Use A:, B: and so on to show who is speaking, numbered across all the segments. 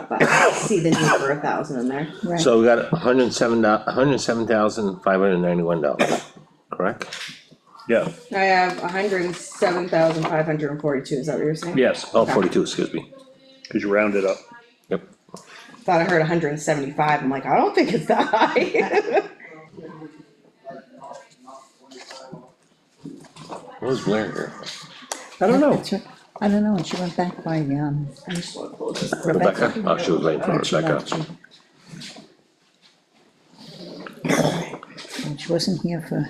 A: but I see the need for a thousand in there.
B: Right,
C: So we got hundred and seven, hundred and seven thousand, five hundred and ninety-one dollars, correct?
D: Yeah,
A: I have a hundred and seven thousand five hundred and forty-two, is that what you're saying?
D: yes,
C: Oh, forty-two, excuse me.
D: cause you round it up.
C: Yep.
A: Thought I heard hundred and seventy-five, I'm like, I don't think it's that high.
C: What was Blair here?
D: I don't know.
B: that's right. I don't know, and she went back by, um,
A: I just wanna close this.
B: Rebecca.
C: Rebecca? Oh, she was waiting for
B: and she left
C: Rebecca.
B: you. And she wasn't here for,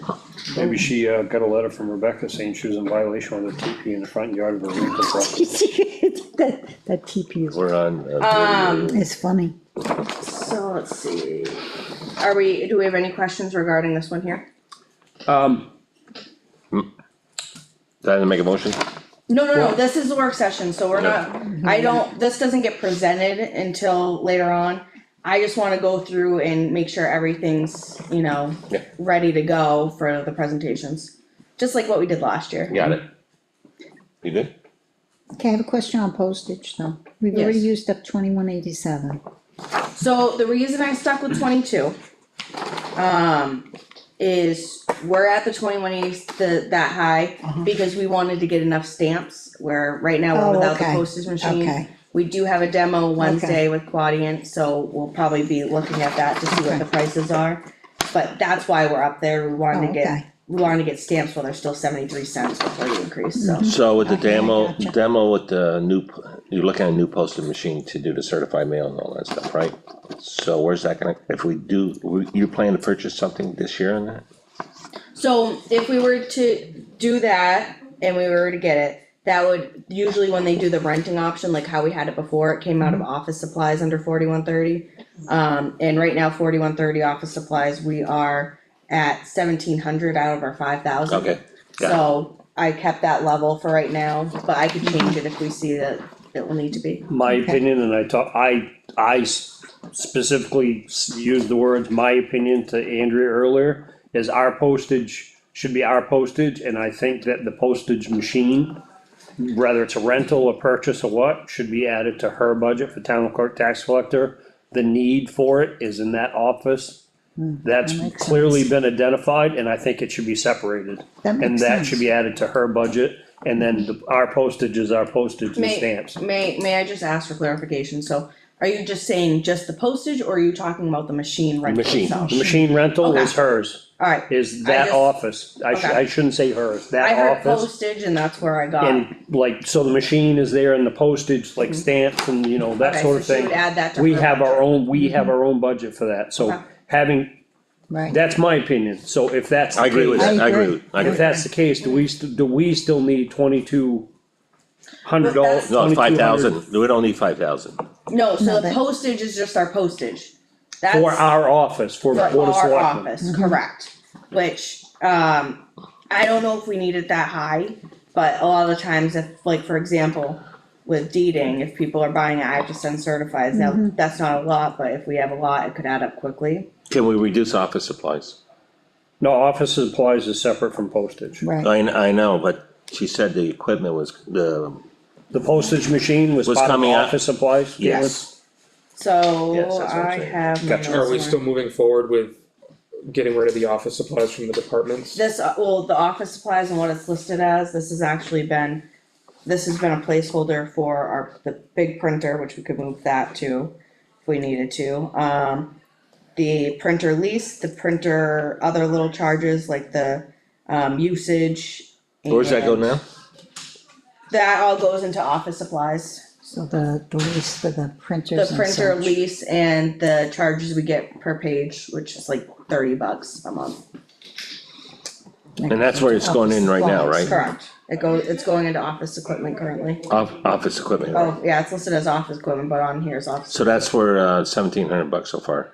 D: Maybe she, uh, got a letter from Rebecca saying she was in violation with a teepee in the front yard of her rental property.
B: that, that TP is,
C: We're on. uh,
A: Um,
B: is funny.
A: So let's see, are we, do we have any questions regarding this one here?
D: Um,
C: Did I make a motion?
A: No, no, no,
D: Well-
A: this is a work session, so we're not, I don't, this doesn't get presented until later on. I just wanna go through and make sure everything's, you know,
C: Yeah.
A: ready to go for the presentations, just like what we did last year.
C: Got it. You did?
B: Okay, I have a question on postage though. We've already
A: Yes.
B: used up twenty-one eighty-seven.
A: So the reason I stuck with twenty-two, um, is we're at the twenty-one eighties, the, that high, because we wanted to get enough stamps, where right now
B: Uh-huh. Oh,
A: we're without the
B: okay,
A: postage machine.
B: okay.
A: We do have a demo Wednesday with Quadient, so we'll probably be looking at that to see what
B: Okay.
A: the prices are. But that's why we're up there, we wanted to
B: Oh, okay.
A: get, we wanted to get stamps while they're still seventy-three cents before the increase,
B: Mm-hmm.
A: so.
C: So with the
B: Okay, I
C: demo,
B: gotcha.
C: demo with the new, p- you're looking at a new posting machine to do the certified mail and all that stuff, right? So where's that gonna, if we do, we- you plan to purchase something this year on that?
A: So if we were to do that and we were to get it, that would usually when they do the renting option, like how we had it before, it came out of office supplies under forty-one thirty. Um, and right now forty-one thirty office supplies, we are at seventeen hundred out of our five thousand.
C: Okay, got it.
A: So I kept that level for right now, but I could change it if we see that it will need to be.
D: my opinion, and I talk, I, I s- specifically s- used the words, my opinion to Andrea earlier, is our postage should be our postage, and I think that the postage machine, whether it's a rental, a purchase, or what, should be added to her budget for town clerk, tax collector. The need for it is in that office. That's
B: Hmm, that makes
D: clearly been identified, and I think it should be separated.
B: That
D: And
B: makes
D: that should
B: sense.
D: be added to her budget, and then the- our postage is our postage and
A: May-
D: stamps.
A: May, may I just ask for clarification? So are you just saying just the postage or are you talking about the machine rental
C: machine.
A: itself?
D: The machine rental is
A: Okay.
D: hers,
A: Alright,
D: is
A: I
D: that
A: just-
D: office, I should,
A: okay.
D: I shouldn't say hers,
A: I
D: that
A: heard
D: office.
A: postage and that's where I got.
D: And like, so the machine is there and the postage, like stamps and, you know, that
A: Mm-hmm. Okay,
D: sort
A: so
D: of
A: she
D: thing.
A: would add that to
D: We
A: her
D: have our
A: budget. Mm-hmm.
D: own, we have our own budget for that,
A: Okay.
D: so having,
B: Right.
D: that's my opinion, so if that's.
C: I agree with
D: the
C: that,
B: I
C: I agree
B: agree.
C: with, I
D: case-
C: agree.
D: If that's the case, do we, st- do we still need twenty-two hundred dollars?
C: No, five thousand, we don't need five thousand.
A: No, so
B: No,
A: the
B: that-
A: postage is just our postage. That's
D: For our office, for the
A: for
D: board of
A: our
D: selectmen.
A: office, correct. Which, um, I don't know if we need it that high, but a lot of the times if, like, for example, with deeding, if people are buying, it, I have to send certifies. Now, that's not a lot, but if we have a lot, it could add up quickly.
C: Can we reduce office supplies?
D: No, office supplies is separate from postage.
B: Right,
C: I, kn- I know, but she said the equipment was, the,
D: The postage machine was
C: Was
D: part of
C: coming out-
D: office supplies? Caitlin?
C: yes, Yes,
A: So
C: that's what I'm
A: I
C: saying.
A: have. my
E: Gotcha. Are we
A: notes
E: still
A: here.
E: moving forward with getting rid of the office supplies from the departments?
A: This, uh, well, the office supplies and what it's listed as, this has actually been, this has been a placeholder for our, the big printer, which we could move that to if we needed to. Um, the printer lease, the printer, other little charges like the, um, usage.
C: where's that go
A: and-
C: now?
A: That all goes into office supplies,
B: so the, the lease for the
A: the
B: printers and
A: printer
B: such.
A: lease and the charges we get per page, which is like thirty bucks a month.
C: And that's where it's going in right now, right?
A: Correct. It goes, it's going into office equipment currently.
C: Off, office equipment, right?
A: Oh, yeah, it's listed as office equipment, but on here is office,
C: So that's for, uh, seventeen hundred bucks so far,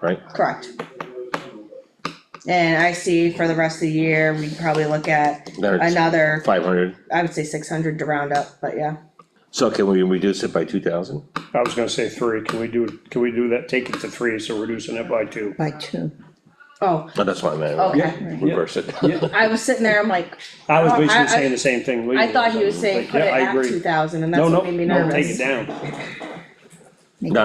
C: right?
A: correct. And I see for the rest of the year, we probably look at another,
C: Five hundred,
A: I would say six hundred to round up, but yeah.
C: so can we reduce it by two thousand?
D: I was gonna say three, can we do, can we do that, take it to three, so reducing it by two?
B: By two,
A: Oh,
C: No, that's what I meant,
A: okay.
C: reverse it.
A: I was sitting there, I'm like,
D: I was
A: Oh, I-
D: basically
A: I-
D: saying the same thing. legally,
A: I thought he was saying
D: but
A: put it
D: yeah, I
A: at
D: agree.
A: two thousand and that's
D: No, no,
A: what made me
D: no, take it
A: nervous.
D: down,